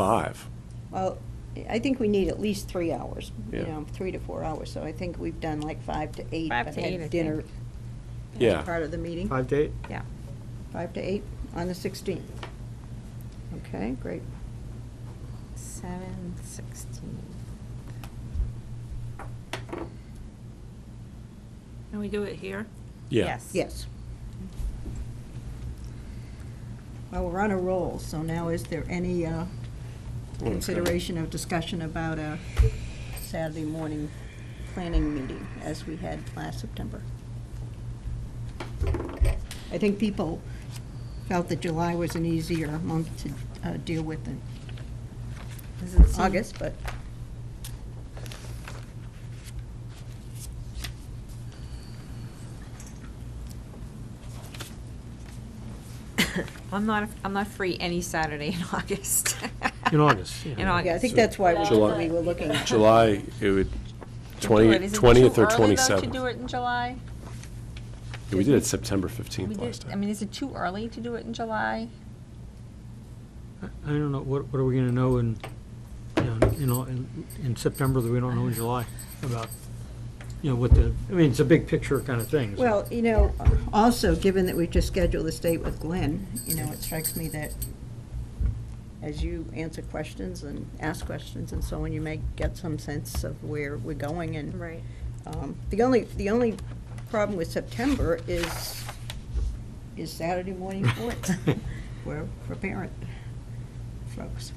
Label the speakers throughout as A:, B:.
A: Five.
B: Well, I think we need at least three hours, you
A: Yeah.
B: know, three to four hours, so I think we've done like five to eight.
C: Five
B: but
C: to
B: had
C: eight, I
B: Dinner.
C: think.
B: as
A: Yeah.
B: Part of the meeting,
D: Five to eight?
C: Yeah.
B: five to eight on the sixteenth. Okay, great.
C: Seven sixteen.
E: Can we do it here?
A: Yeah.
C: Yes.
B: Yes. Well, we're on a roll, so now is there any uh,
A: good.
B: consideration of discussion about a Saturday morning planning meeting as we had last September? I think people felt that July was an easier month to uh, deal with than
C: Doesn't seem-
B: August, but
C: I'm not, I'm not free any Saturday in August.
D: In August, yeah.
C: In
D: Yeah, I
C: August.
B: yeah, I think that's why
A: July.
B: we- we were looking. at-
A: July, it would,
C: To do it.
A: 20
C: Is it
A: 20th
C: too
A: or
C: early, though,
A: 27th.
C: To do it in July?
A: Yeah, We did it September 15th
C: We
A: last
C: did, I mean,
A: time.
C: is it too early to do it in July?
D: I I don't know, what, what are we gonna know in, you know, in, all- in- in September that we don't know in July about, you know, what the, I mean, it's a big picture kind of thing. so-
B: Well, you know, also, given that we just scheduled this date with Glenn, you know, it strikes me that as you answer questions and ask questions and so on, you may get some sense of where we're going and.
C: Right.
B: Um, The only, the only problem with September is, is Saturday morning sports for, for parent folks.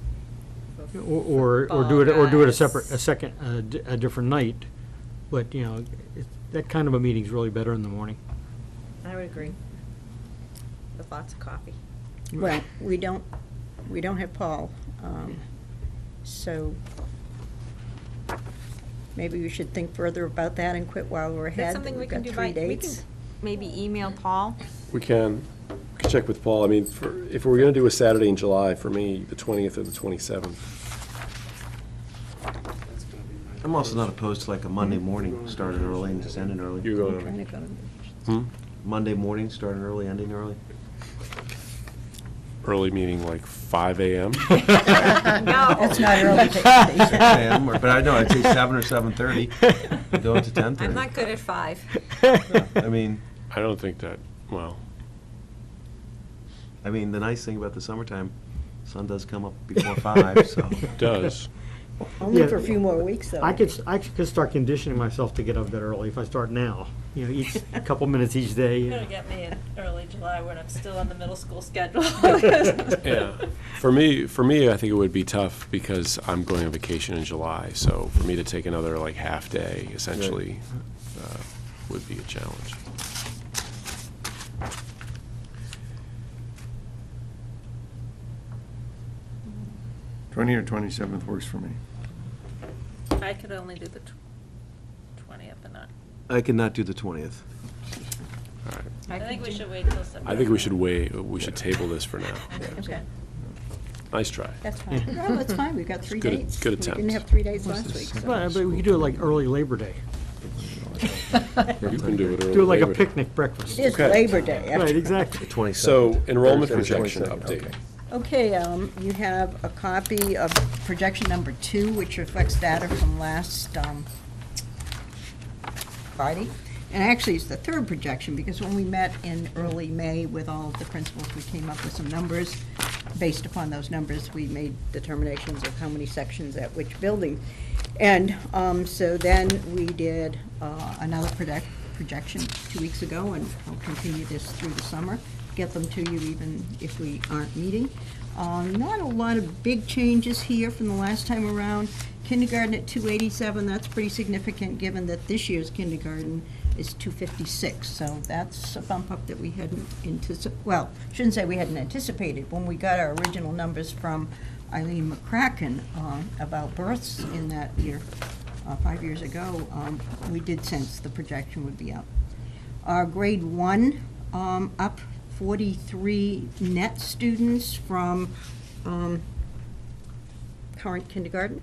D: Or, or- or do it, or do it
C: Football
D: a separate, a
C: guys.
D: second, a di- a different night, but, you know, it- that kind of a meeting's really better in the morning.
C: I would agree. With lots of coffee.
B: Well, we don't, we don't have Paul, um, so maybe we should think further about that and quit while we're
C: Is
B: ahead.
C: that
B: that
C: something we
B: we've
C: can
B: got
C: do
B: three
C: by, we can
B: dates.
C: maybe email Paul?
A: We can, we can check with Paul. I mean, for- if we're going to do a Saturday in July, for me, the 20th or the 27th.
F: I'm also not opposed to like a Monday morning, starting early and just ending early.
A: You're
B: I'm trying
A: going,
B: to go to-
A: hmm?
F: Monday morning, starting early, ending early.
A: Early meeting like 5 AM?
C: No.
B: That's not early.
F: Six a.m. or- But I know, I'd say seven or seven-thirty, going to
C: I'm
F: ten-thirty.
C: not good at five.
F: I mean,
A: I don't think that, well,
F: I mean, the nice thing about the summertime, sun does come up before five, so.
A: it does.
B: Only for a few more weeks, though.
D: I could, s- I could start conditioning myself to get up that early if I start now, you know, each, a couple minutes each day. you
E: You're
D: know.
E: gonna get me in early July when I'm still on the middle school schedule.
A: Yeah. For me, for me, I think it would be tough because I'm going on vacation in July, so for me to take another like half day essentially uh, would be a challenge.
G: Twenty or twenty-seventh works for me.
E: I could only do the twentieth, but not,
F: I could not do the twentieth.
A: All right.
E: I think we should wait till September.
A: I think we should wait, we should table this for now.
C: Okay.
A: Nice try.
B: That's fine. No, that's fine, we've got three
A: Good-
B: dates.
A: good
B: We didn't
A: attempt.
B: have three dates last week, so.
D: Well, But we could do it like early Labor Day,
A: You can do it early.
D: do it like a
A: Labor Day.
D: picnic breakfast.
B: It is
A: Okay.
B: Labor Day.
D: Right, exactly.
A: So enrollment projection update.
B: Okay, um, you have a copy of projection number two, which reflects data from last, um, Friday. And actually, it's the third projection, because when we met in early May with all of the principals, we came up with some numbers. Based upon those numbers, we made determinations of how many sections at which building. And um, so then we did uh, another project, projection two weeks ago, and we'll continue this through the summer, get them to you even if we aren't meeting. Um, Not a lot of big changes here from the last time around. Kindergarten at 287, that's pretty significant, given that this year's kindergarten is 256. So that's a bump up that we hadn't anticip, well, shouldn't say we hadn't anticipated. When we got our original numbers from Eileen McCracken uh, about births in that year, uh, five years ago, um, we did sense the projection would be up. Our grade one, um, up 43 net students from um, current kindergarten.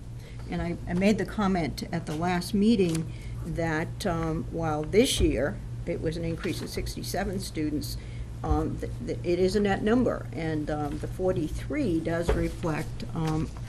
B: And I, I made the comment at the last meeting that um, while this year it was an increase of 67 students, um, um, th- th- it is a net number, and um, the 43 does reflect um,